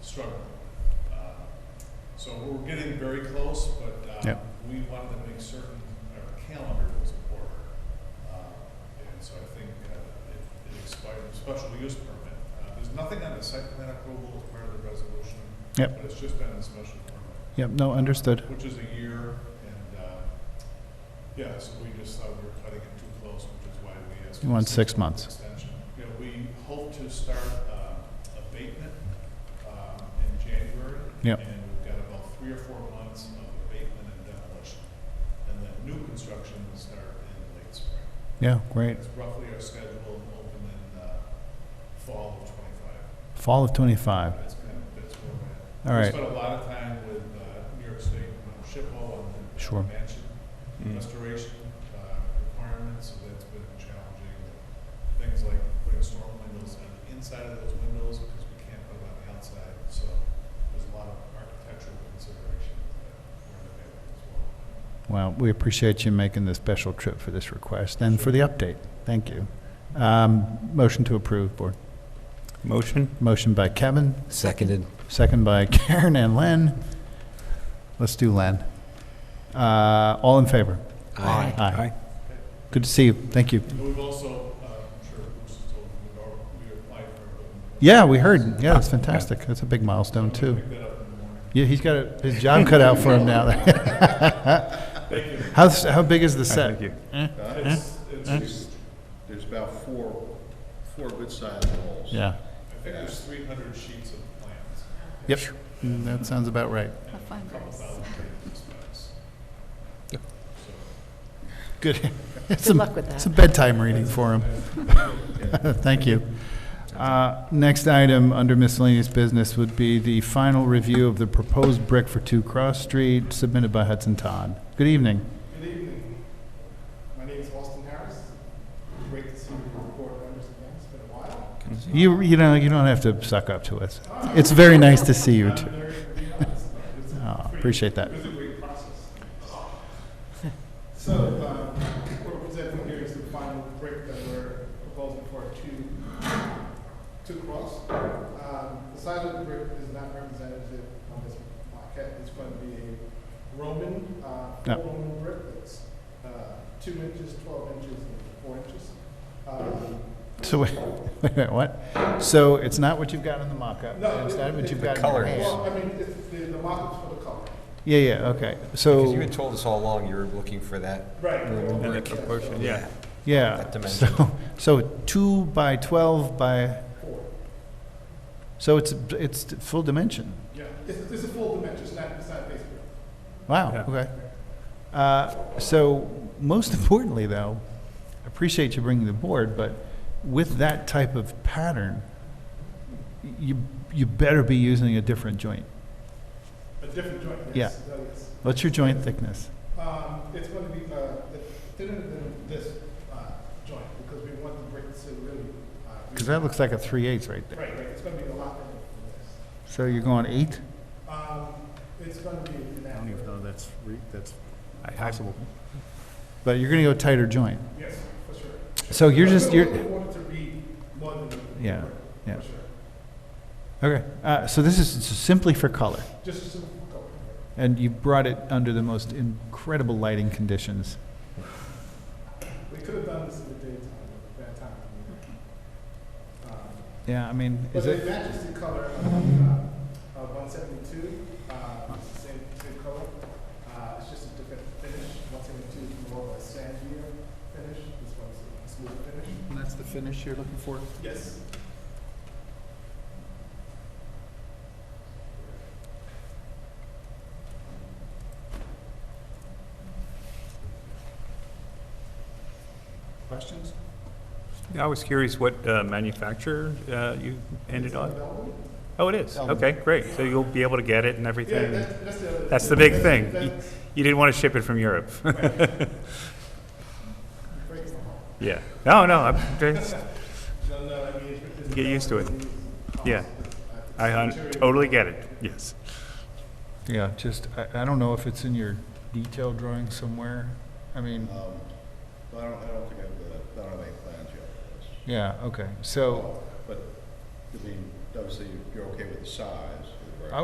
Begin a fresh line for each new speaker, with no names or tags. struggling. Uh, So we're getting very close, but uh,
Yep.
we wanted to make certain our calendar was in order. Uh, And so I think uh, it it expired, the special use permit. Uh, There's nothing on the site plan approval as part of the resolution.
Yep.
But it's just on the special permit.
Yep, no, understood.
Which is a year, and, uh, yeah, so we just thought we were cutting it too close, which is why we asked.
You
for
want six
six-month
months.
Extension. Yeah, we hope to start uh, abatement um, in January.
Yep.
And we've got about three or four months of abatement and demolition. And then new construction will start in late spring.
Yeah, great.
That's roughly our schedule, and open in uh, fall of '25.
Fall of 25.
That's kind of, that's where we're at.
All
We
right.
spent a lot of time with uh, New York State uh, SHPO on the
Sure.
mansion restoration uh, requirements, so that's been challenging. Things like putting storm windows on the inside of those windows, because we can't put them on the outside, so there's a lot of architectural considerations that we're debating as well.
Well, we appreciate you making the special trip for this request and for the update. Thank you. Um, Motion to approve, Board.
Motion?
Motion by Kevin,
Seconded.
second by Karen and Len. Let's do Len. Uh, All in favor?
Aye.
Aye. Good to see you. Thank you.
And we've also, uh, I'm sure Bruce has told you, we've al- we applied for. a building permit.
Yeah, we heard. Yeah, that's fantastic. That's a big milestone,
I'm gonna
too.
Pick that up in the morning.
Yeah, he's got a- his job cut out for him now.
Thank you.
How, how big is the set?
Thank you.
Eh?
It's, it's
There's there's about four, four good-sized walls.
Yeah.
I think there's three hundred sheets of plans,
Yep, Mm, that sounds about right.
and a couple thousand pages of specs.
Good. Good
luck with that.
It's a bedtime reading for him. Thank you. Uh, Next item under miscellaneous business would be the final review of the proposed brick for Two Cross Street submitted by Hudson Todd. Good evening.
Good evening. My name is Austin Harris. Great to see you report members again. It's been a while.
You, you know, you don't have to suck up to us. It's very nice to see you, too.
Very, very honest. It's a
Oh, Appreciate that.
great process. So, um, what we're presenting here is the final brick that we're proposing for two, two cross. Um, The size of the brick is not representative on this maquette. It's going to be a Roman, uh,
Yeah.
Roman brick that's uh, two inches, 12 inches, and four inches. Um,
So, wait, wait, wait, what? So it's not what you've got in the mock-up?
No,
It's not what you've
the
got in your
color.
hand?
Well, I mean, it's the, the mockup's for the color.
Yeah, yeah, okay.
Because you
So,
had told us all along you were looking for that.
Right.
And the proportion, yeah.
yeah.
that dimension.
So, so two by 12 by, so it's, it's full dimension?
Yeah, it's, it's a full dimension, it's not, it's not basically.
Wow,
Yeah.
okay. Uh, So, most importantly, though, I appreciate you bringing the board, but with that type of pattern, you, you better be using a different joint.
A different joint,
Yeah.
yes. Oh, yes.
What's your joint thickness?
Um, it's gonna be, uh, the- thinner than this, uh, joint, because we want the brick to really, uh. be-
Because that looks like a three eighths right there.
Right, right, it's gonna be a lot thinner than this.
So you're going eight?
Um, it's gonna be an accurate,
that's, that's
Possible.
But you're going to go tighter joint.
yes, for sure.
So you're just,
We
you're,
want it to read more than. the
Yeah,
brick,
yeah.
For sure,
okay. Uh, so this is simply for color.
just a simple color.
And you brought it under the most incredible lighting conditions.
We could have done this in the daytime, but bad time. Um,
Yeah, I mean,
But
is
it
it?
matches the color of the, uh, of one seventy-two, uh, it's the same, same color. Uh, it's just a different finish, one seventy-two is more of a sandier finish, this one's a smooth finish.
That's the finish you're looking for?
Yes.
Questions?
I was curious what uh, manufacturer uh, you ended on? Oh, it is? Okay, great. So you'll be able to get it and
Yeah,
everything?
that, that's the other.
That's the big thing. You-
That's
You didn't want to ship it from Europe?
breaks my heart.
Yeah. No, no, I'm- it's-
No, no, I mean. it's-
Get used to it.
it's-
Yeah. I un- totally get it. Yes.
Yeah, just, I, I don't know if it's in your detail drawing somewhere. I mean,
Um, but I don't, I don't think I've, got- I don't have any plans yet for this.
yeah, okay. So,
But, I mean, obviously, you're okay with the size.